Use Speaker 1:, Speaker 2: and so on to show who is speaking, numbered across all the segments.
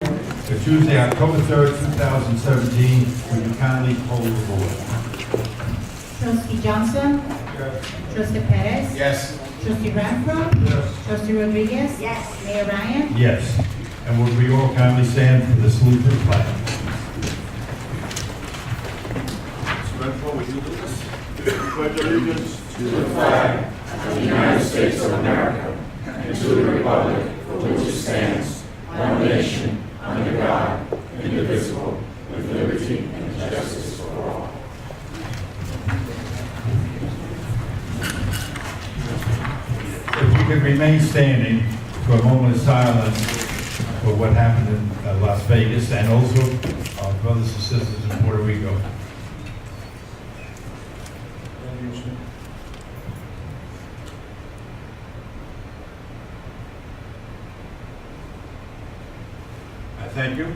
Speaker 1: for Tuesday, October 3rd, 2017. Would you kindly hold the board?
Speaker 2: Trustee Johnson? Trustee Perez?
Speaker 1: Yes.
Speaker 2: Trustee Renfro?
Speaker 1: Yes.
Speaker 2: Trustee Rodriguez?
Speaker 3: Yes.
Speaker 2: Mayor Ryan?
Speaker 1: Yes. And would we all kindly stand for the salute to the flag?
Speaker 4: Mr. Renfro, would you lead us? Pledge allegiance to the flag
Speaker 1: If we could remain standing for a moment of silence for what happened in uh, Las Vegas and also our brothers and sisters in Puerto Rico. I thank you.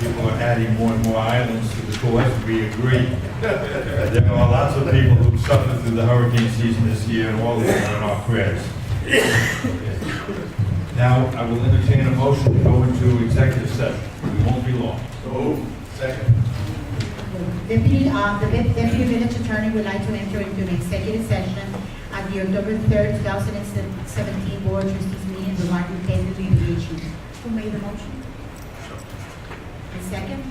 Speaker 1: People are adding more and more islands to the course, we agree. There are lots of people who suffered through the hurricane season this year, and all of them are in our prayers. Now, I will entertain a motion to go into executive session. We won't be long. So, second.
Speaker 2: Deputy, uh, the Dep- deputy village attorney would like to enter into an executive session at the October third, two thousand and seventeen board trustees meeting regarding pending litigation. Who made the motion? The second?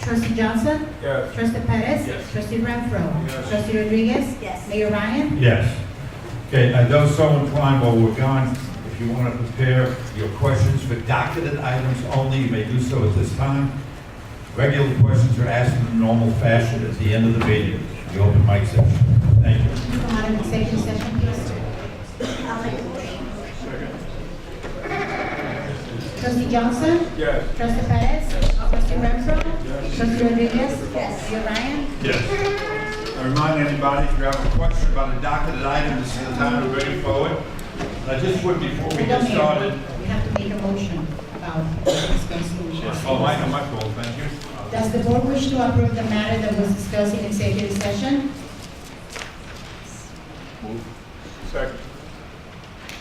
Speaker 2: Trustee Johnson?
Speaker 4: Yes.
Speaker 2: Trustee Perez?
Speaker 4: Yes.
Speaker 2: Trustee Renfro?
Speaker 4: Yes.
Speaker 2: Trustee Rodriguez?
Speaker 3: Yes.
Speaker 2: Mayor Ryan?
Speaker 1: Yes. Okay, and those so inclined while we're gone, if you want to prepare your questions for docketed items only, you may do so at this time. Regular questions are asked in the normal fashion at the end of the meeting, the open mic session. Thank you.
Speaker 2: Can you come out of executive session, please?
Speaker 3: I'll make a motion.
Speaker 2: Trustee Johnson?
Speaker 4: Yes.
Speaker 2: Trustee Perez? Trustee Renfro? Trustee Rodriguez?
Speaker 3: Yes.
Speaker 2: Mayor Ryan?
Speaker 1: Yes. I remind anybody, if you have a question about a docketed item, this is the time to bring it forward. I just would, before we
Speaker 2: We
Speaker 1: get
Speaker 2: don't make,
Speaker 1: started.
Speaker 2: we have to make a motion about expense
Speaker 1: Oh,
Speaker 2: rules.
Speaker 1: my, my fault, thank you.
Speaker 2: Does the board wish to approve the matter that was discussed in executive session?
Speaker 4: Second.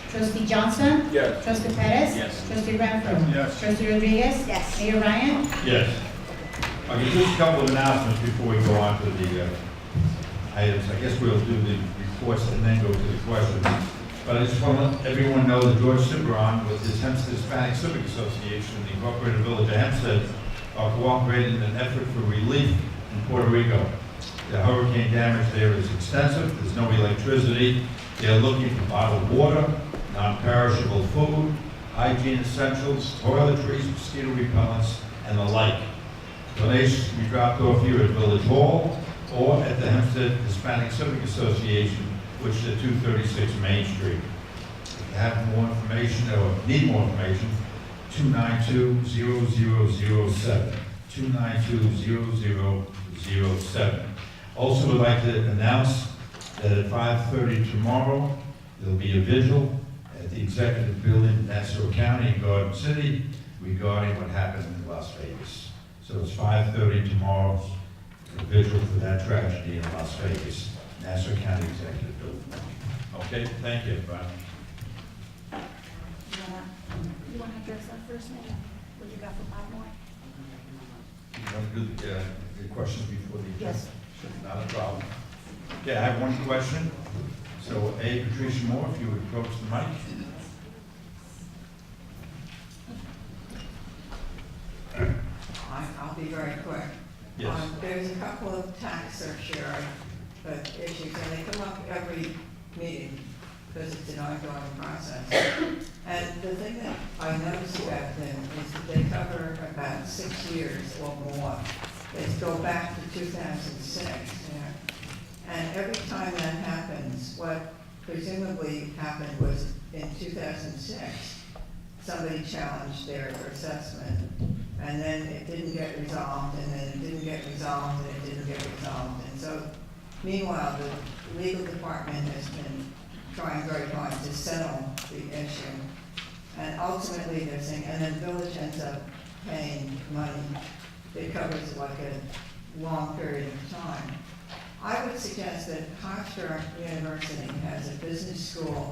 Speaker 2: Trustee Johnson?
Speaker 4: Yes.
Speaker 2: Trustee Perez?
Speaker 4: Yes.
Speaker 2: Trustee Renfro?
Speaker 1: Yes.
Speaker 2: Trustee Rodriguez?
Speaker 3: Yes.
Speaker 2: Mayor Ryan?
Speaker 1: Yes. Okay, just a couple of announcements before we go on to the uh, items. I guess we'll do the reports and then go to the questions. But I just want to let everyone know that George Ciberon with his Hempstead Hispanic Civic Association and the Incorporated Village of Hempstead are cooperating in an effort for relief in Puerto Rico. The hurricane damage there is extensive, there's no electricity, they're looking for bottled water, non-perishable food, hygiene essentials, toiletries, mosquito repellents, and the like. Donations can be dropped off here at Village Hall or at the Hempstead Hispanic Civic Association, which is at 236 Main Street. If you have more information or need more information, 292-0007, 292-0007. Also would like to announce that at 5:30 tomorrow, there'll be a vigil at the Executive Building, in Nassau County, in Garden City, regarding what happened in Las Vegas. So it's 5:30 tomorrow, a vigil for that tragedy in Las Vegas, Nassau County Executive Building. Okay, thank you, everybody.
Speaker 3: You wanna- You want to address that first, Mayor? What you got for five more?
Speaker 1: You want to do the, uh, the questions before the... Yes. Not a problem. Okay, I have one question. So, A, Patricia Moore, if you would approach the mic.
Speaker 5: I- I'll be very quick. Um, There's a couple of tax surcharge but issues, and they come up every meeting because it's an ongoing process. And the thing that I notice about them is that they cover about six years or more. They go back to 2006, you know. And every time that happens, what presumably happened was in 2006, somebody challenged their assessment, and then it didn't get resolved, and then it didn't get resolved, and it didn't get resolved. And so meanwhile, the legal department has been trying very hard to settle the issue. And ultimately, they're saying, and then village ends up paying money that covers like a long period of time. I would suggest that Hofstra University has a business school